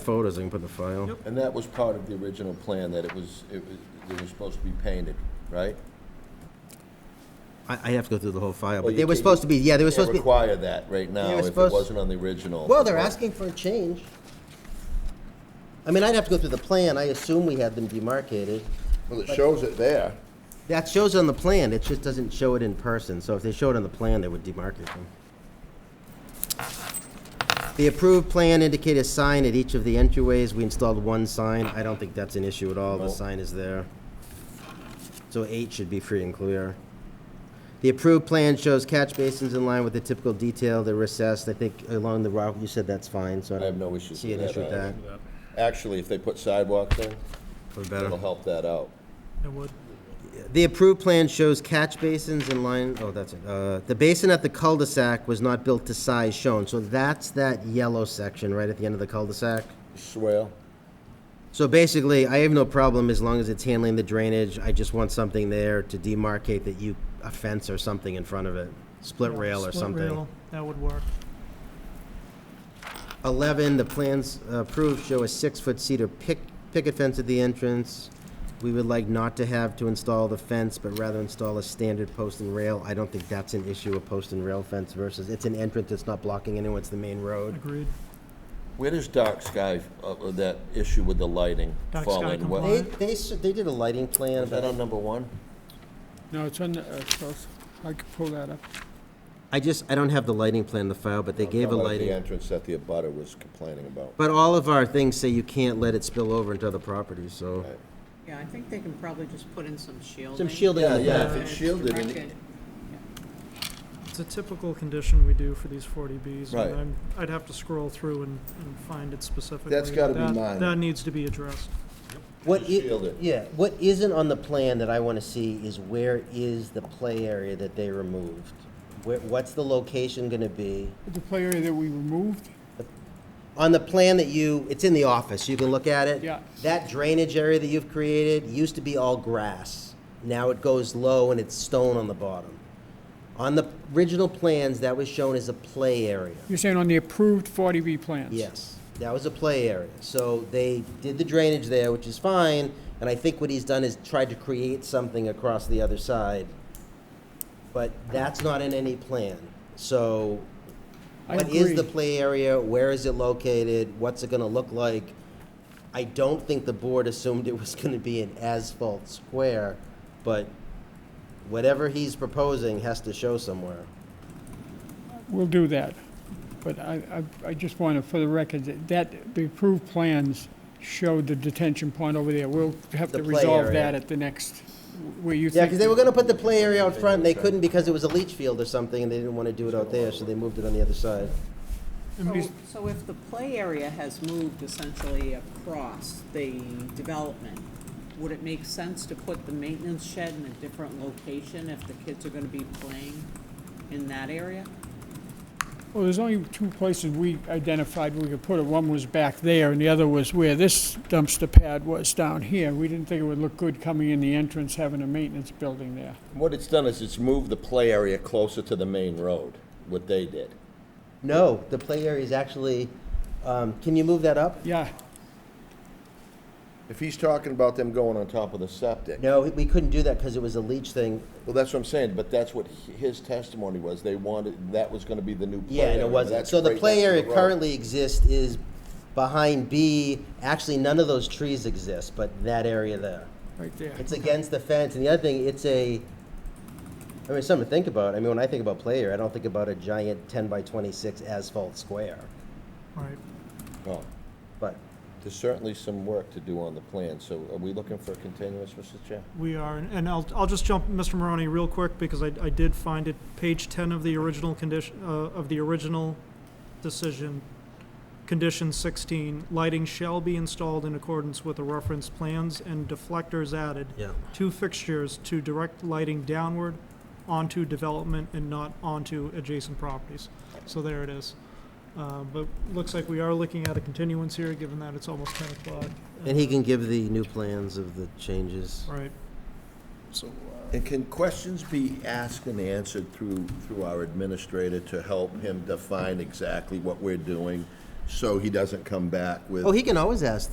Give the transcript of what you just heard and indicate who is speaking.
Speaker 1: photos I can put in the file.
Speaker 2: And that was part of the original plan, that it was, it was, it was supposed to be painted, right?
Speaker 1: I, I have to go through the whole file,
Speaker 2: Well,
Speaker 1: but
Speaker 2: Oh, you
Speaker 1: they were
Speaker 2: can't-
Speaker 1: supposed to be, yeah, they were
Speaker 2: Can't
Speaker 1: supposed to be,
Speaker 2: require that right now
Speaker 1: were
Speaker 2: if it
Speaker 1: supposed-
Speaker 2: wasn't on the original.
Speaker 3: Well, they're asking for a change. I mean, I'd have to go through the plan. I assume we had them demarcated.
Speaker 4: Well, it shows it there.
Speaker 1: that shows on the plan, it just doesn't show it in person, so if they show it on the plan, they would demarcate them. The approved plan indicated a sign at each of the entryways, we installed one sign, I don't think that's an issue at all, the
Speaker 2: No.
Speaker 1: sign is there. So eight should be free and clear. The approved plan shows catch basins in line with the typical detail, they're recessed, I think along the route, you said that's fine, so I
Speaker 2: I have
Speaker 1: don't
Speaker 2: no issues
Speaker 1: see
Speaker 2: with
Speaker 1: an
Speaker 2: that.
Speaker 1: issue with that.
Speaker 2: Actually, if they put sidewalks in,
Speaker 1: Probably
Speaker 2: it'll
Speaker 1: better.
Speaker 2: help that out.
Speaker 5: It would.
Speaker 1: The approved plan shows catch basins in line, oh, that's it. Uh, The basin at the cul-de-sac was not built to size shown, so that's that yellow section right at the end of the cul-de-sac.
Speaker 2: Swale,
Speaker 1: So basically, I have no problem as long as it's handling the drainage. I just want something there to demarcate that you, a fence or something in front of it, split rail or
Speaker 5: Split
Speaker 1: something.
Speaker 5: rail, That would work.
Speaker 1: 11, the plans approved show a six-foot cedar pic- picket fence at the entrance. We would like not to have to install the fence, but rather install a standard post and rail. I don't think that's an issue, a post and rail fence versus, it's an entrance, it's not blocking anyone, it's the main road.
Speaker 5: Agreed.
Speaker 2: where does dark sky, uh, uh, that issue with the lighting
Speaker 5: Dark
Speaker 2: fall
Speaker 5: sky
Speaker 2: in? What-
Speaker 1: They,
Speaker 5: compliant.
Speaker 1: they, s- they did a lighting plan,
Speaker 2: Is that
Speaker 1: but
Speaker 2: on number one?
Speaker 6: No, it's on the, uh, close. I could pull that up.
Speaker 1: I just, I don't have the lighting plan in the file, but they
Speaker 2: I'm
Speaker 1: gave a
Speaker 2: talking about The
Speaker 1: lighting.
Speaker 2: entrance that the abutter was complaining about.
Speaker 1: But all of our things say you can't let it spill over into other properties, so.
Speaker 2: Right.
Speaker 7: Yeah, I think they can probably just put in some shielding. Uh,
Speaker 1: Some shielding in
Speaker 2: Yeah,
Speaker 1: the
Speaker 2: yeah,
Speaker 1: back.
Speaker 2: if it's shielded and it-
Speaker 5: It's a typical condition we do for these 40Bs. and
Speaker 2: Right.
Speaker 5: I'm- I'd have to scroll through and, and find it specifically. but
Speaker 2: gotta be
Speaker 5: that-
Speaker 2: mine.
Speaker 5: That needs to be addressed.
Speaker 1: What
Speaker 2: Just
Speaker 1: i-
Speaker 2: shield it.
Speaker 1: Yeah, what isn't on the plan that I want to see is where is the play area that they removed? Where, what's the location going to be?
Speaker 6: The play area that we removed,
Speaker 1: On the plan that you, it's in the office, you can look at it.
Speaker 6: Yeah.
Speaker 1: That drainage area that you've created used to be all grass. Now it goes low and it's stone on the bottom. On the original plans, that was shown as a play area.
Speaker 6: you're saying on the approved 40B plans?
Speaker 1: Yes, that was a play area. So they did the drainage there, which is fine, and I think what he's done is tried to create something across the other side. But that's not in any plan. So
Speaker 6: I
Speaker 1: what is the
Speaker 6: agree.
Speaker 1: play area? Where is it located? What's it gonna look like? I don't think the board assumed it was gonna be an asphalt square, but whatever he's proposing has to show somewhere.
Speaker 6: We'll do that. But I, I, I just want to, for the record, that- that, the approved plans showed the detention pond over there. We'll have
Speaker 1: The
Speaker 6: to
Speaker 1: play
Speaker 6: resolve
Speaker 1: area.
Speaker 6: that at the next, where you
Speaker 1: Yeah,
Speaker 6: think.
Speaker 1: because they were gonna put the play area out front, and they couldn't because it was a leach field or something, and they didn't wanna do it out there, so they moved it on the other side.
Speaker 7: So- So if the play area has moved essentially across the development, would it make sense to put the maintenance shed in a different location if the kids are gonna be playing in that area?
Speaker 6: Well, there's only two places we identified we could put it. One was back there, and the other was where this dumpster pad was down here. We didn't think it would look good coming in the entrance, having a maintenance building there.
Speaker 2: What it's done is it's moved the play area closer to the main road, what they did.
Speaker 1: No, the play area is actually, um, can you move that up?
Speaker 6: Yeah,
Speaker 2: If he's talking about them going on top of the septic,
Speaker 1: No, we couldn't do that because it was a leach thing,
Speaker 2: well, that's what I'm saying, but that's what hi- his testimony was. They wanted, that was gonna be the new play
Speaker 1: yeah, and
Speaker 2: area,
Speaker 1: it
Speaker 2: but
Speaker 1: wasn't.
Speaker 2: that's
Speaker 1: So the
Speaker 2: right
Speaker 1: play
Speaker 2: next to
Speaker 1: area
Speaker 2: the road.
Speaker 1: currently exists is behind B, actually, none of those trees exist, but that area there.
Speaker 6: right there.
Speaker 1: It's against the fence, and the other thing, it's a, I mean, something to think about. I mean, when I think about play area, I don't think about a giant ten by twenty-six asphalt square,
Speaker 5: Right.
Speaker 2: Oh,
Speaker 1: but
Speaker 2: There's certainly some work to do on the plan, so are we looking for a continuance, Mr. Chair?
Speaker 5: We are, and and I'll, I'll just jump, Mr. Maroney, real quick, because I, I did find it, page ten of the original condition, uh, of the original decision, condition sixteen, lighting shall be installed in accordance with the reference plans and deflectors added.
Speaker 1: Yeah.
Speaker 5: Two fixtures to direct lighting downward onto development and not onto adjacent properties. So there it is. Uh, but looks like we are looking at a continuance here, given that it's almost ten o'clock.
Speaker 1: And he can give the new plans of the changes.
Speaker 5: Right.
Speaker 2: And can questions be asked and answered through, through our administrator to help him define exactly what we're doing?
Speaker 8: so he doesn't come back with.
Speaker 2: Oh, he can always ask